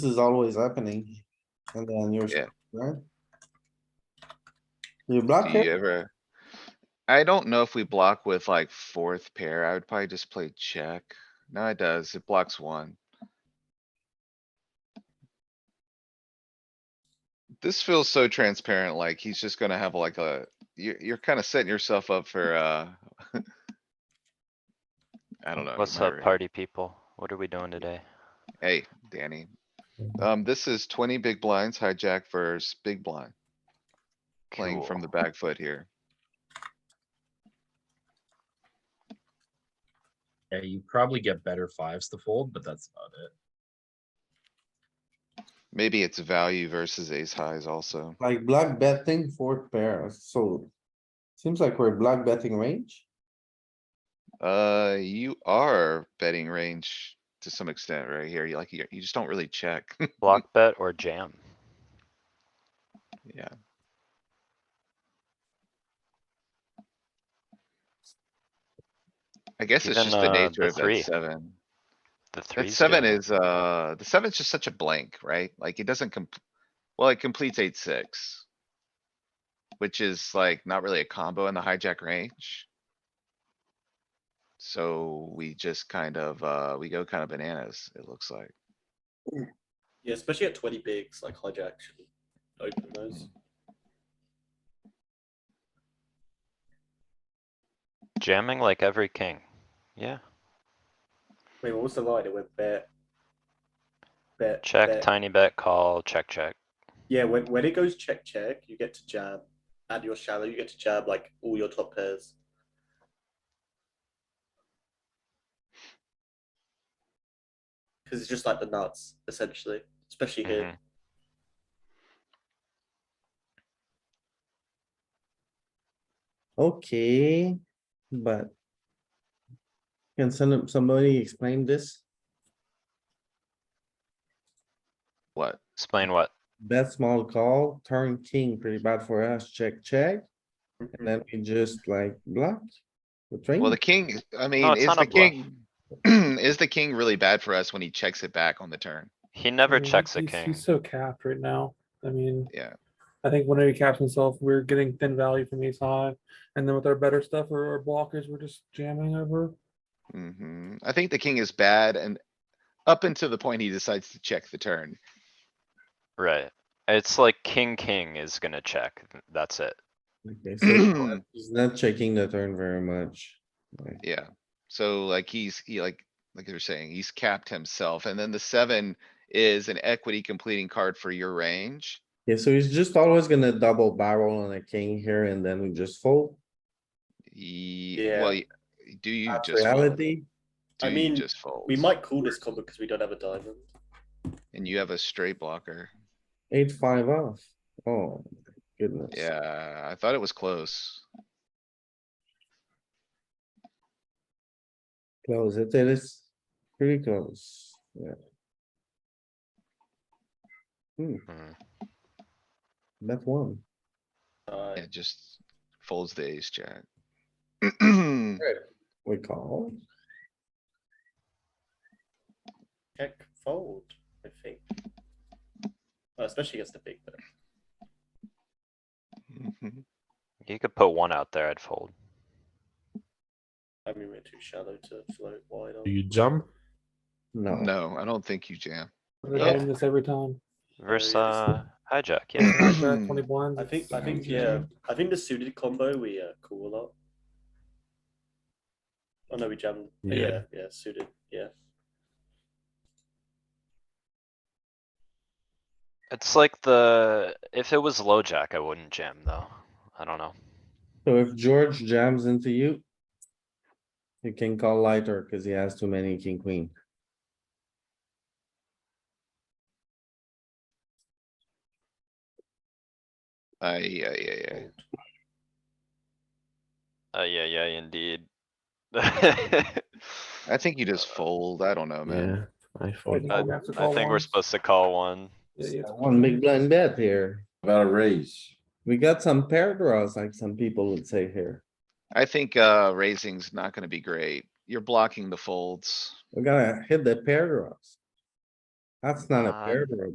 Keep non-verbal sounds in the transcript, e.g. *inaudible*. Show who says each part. Speaker 1: This is always happening. And then you're,
Speaker 2: Yeah.
Speaker 1: right? You block
Speaker 2: Do you
Speaker 1: it,
Speaker 2: ever? I don't know if we block with like fourth pair. I would probably just play check. No, it does. It blocks one. This feels so transparent, like he's just gonna have like a, you're, you're kinda setting yourself up for, uh. *laughs* I don't know.
Speaker 3: What's
Speaker 2: my
Speaker 3: up,
Speaker 2: re-
Speaker 3: party people? What are we doing today?
Speaker 2: Mm. Hey, Danny. Um, this is twenty big blinds hijack versus big blind, playing from the
Speaker 3: Cool.
Speaker 2: back foot here.
Speaker 4: Yeah, you probably get better fives to fold, but that's about it.
Speaker 2: Maybe it's value versus ace highs also.
Speaker 1: like black betting fourth pair, so. Seems like we're black betting range.
Speaker 2: Uh, you are betting range to some extent right here. You like, you, you just don't really check. *laughs*
Speaker 3: Block bet or jam?
Speaker 2: Yeah, I guess it's
Speaker 3: Even,
Speaker 2: just the
Speaker 3: uh,
Speaker 2: nature
Speaker 3: the
Speaker 2: of that
Speaker 3: three.
Speaker 2: seven.
Speaker 3: The three.
Speaker 2: That seven is, uh, the seven's just such a blank, right? Like it doesn't com- well, it completes eight, six. Which is like not really a combo in the hijack range. So we just kind of, uh, we go kind of bananas, it looks like.
Speaker 5: Yeah, especially at 20 bigs, like hijack should open those.
Speaker 3: Jamming like every king. Yeah,
Speaker 5: Wait, what was the line? It went bet. Bet.
Speaker 3: check,
Speaker 5: bet.
Speaker 3: tiny bet, call, check, check.
Speaker 5: Yeah, when, when it goes check, check, you get to jab. And your shallow, you get to jab like all your top pairs. Because it's just like the nuts, essentially. Especially here.
Speaker 3: Mhm.
Speaker 1: Okay, but. Can some, somebody explain this?
Speaker 2: What?
Speaker 3: Explain what?
Speaker 1: Bet small call, turn king, pretty bad for us, check, check, and then we just like block. The
Speaker 2: Well,
Speaker 1: train,
Speaker 2: the king, I mean,
Speaker 3: it's
Speaker 2: is
Speaker 3: not
Speaker 2: the
Speaker 3: a bluff.
Speaker 2: king, is the king *clears throat* really bad for us when he checks it back on the turn?
Speaker 3: He never
Speaker 6: Yeah,
Speaker 3: checks a
Speaker 6: he's-
Speaker 3: king.
Speaker 6: He's so capped right now. I mean,
Speaker 2: Yeah,
Speaker 6: I think whenever he caps himself, we're getting thin value from ace high. And then with our better stuff or our blockers, we're just jamming over.
Speaker 2: hmm I think the king is bad and up until the point he decides to check the turn.
Speaker 3: Right. It's like king, king is gonna check. That's it.
Speaker 1: okay, so
Speaker 2: *clears throat*
Speaker 1: he's not checking the turn very much.
Speaker 2: Yeah, so like he's, he like, like you're saying, he's capped himself, and then the seven is an equity completing card for your range.
Speaker 1: Yeah, so he's just always gonna double barrel on a king here and then we just fold.
Speaker 2: Ye-
Speaker 5: Yeah.
Speaker 2: well, y- do you
Speaker 1: That's
Speaker 2: just, fold?
Speaker 1: reality.
Speaker 2: do
Speaker 5: I
Speaker 2: you
Speaker 5: mean,
Speaker 2: just fold?
Speaker 5: We might call this combo because we don't have a diamond.
Speaker 2: And you have a straight blocker.
Speaker 1: Eight, five off. Oh, my goodness.
Speaker 2: Yeah, I thought it was close.
Speaker 1: Close it. It is pretty close. Yeah,
Speaker 3: Mm.
Speaker 1: that one.
Speaker 5: Uh,
Speaker 2: It just folds the ace
Speaker 5: *clears throat*
Speaker 2: jack.
Speaker 1: We call.
Speaker 5: Check fold, I think. Uh, especially against the big bet.
Speaker 2: Mhm.
Speaker 3: You could put one out there, I'd fold.
Speaker 5: I mean, we're too shallow to float wide on.
Speaker 4: Do you jump?
Speaker 1: No,
Speaker 2: No, I don't think you jam.
Speaker 6: We're
Speaker 3: Yeah.
Speaker 6: doing this every time.
Speaker 3: Versus
Speaker 5: yeah.
Speaker 3: uh,
Speaker 2: *coughs*
Speaker 3: hijack, yeah.
Speaker 6: Jack, Twenty blinds.
Speaker 5: I think, I
Speaker 6: it's-
Speaker 5: think, yeah, I think the suited combo we uh, call a lot. Oh no, we jammed. Yeah,
Speaker 4: Yeah.
Speaker 5: yeah, suited. Yeah,
Speaker 3: It's like the, if it was low jack, I wouldn't jam though. I don't know.
Speaker 1: so if George jams into you. You can call lighter cuz he has too many king, queen.
Speaker 2: I, yeah, yeah, yeah.
Speaker 3: Uh, yeah, yeah, indeed. *laughs*
Speaker 2: I think you just fold. I don't know, man.
Speaker 4: Yeah, I
Speaker 6: I
Speaker 4: fold.
Speaker 6: think
Speaker 3: I
Speaker 6: we have to
Speaker 3: I
Speaker 6: call
Speaker 3: think we're
Speaker 6: ones.
Speaker 3: supposed to call one.
Speaker 6: Yeah, yeah, it's-
Speaker 1: One big blind bet here.
Speaker 7: About a raise.
Speaker 1: We got some pair draws, like some people would say here.
Speaker 2: I think, uh, raising's not gonna be great. You're blocking the folds.
Speaker 1: We gotta hit the pair draws. That's not a
Speaker 3: Um,
Speaker 1: pair, bro.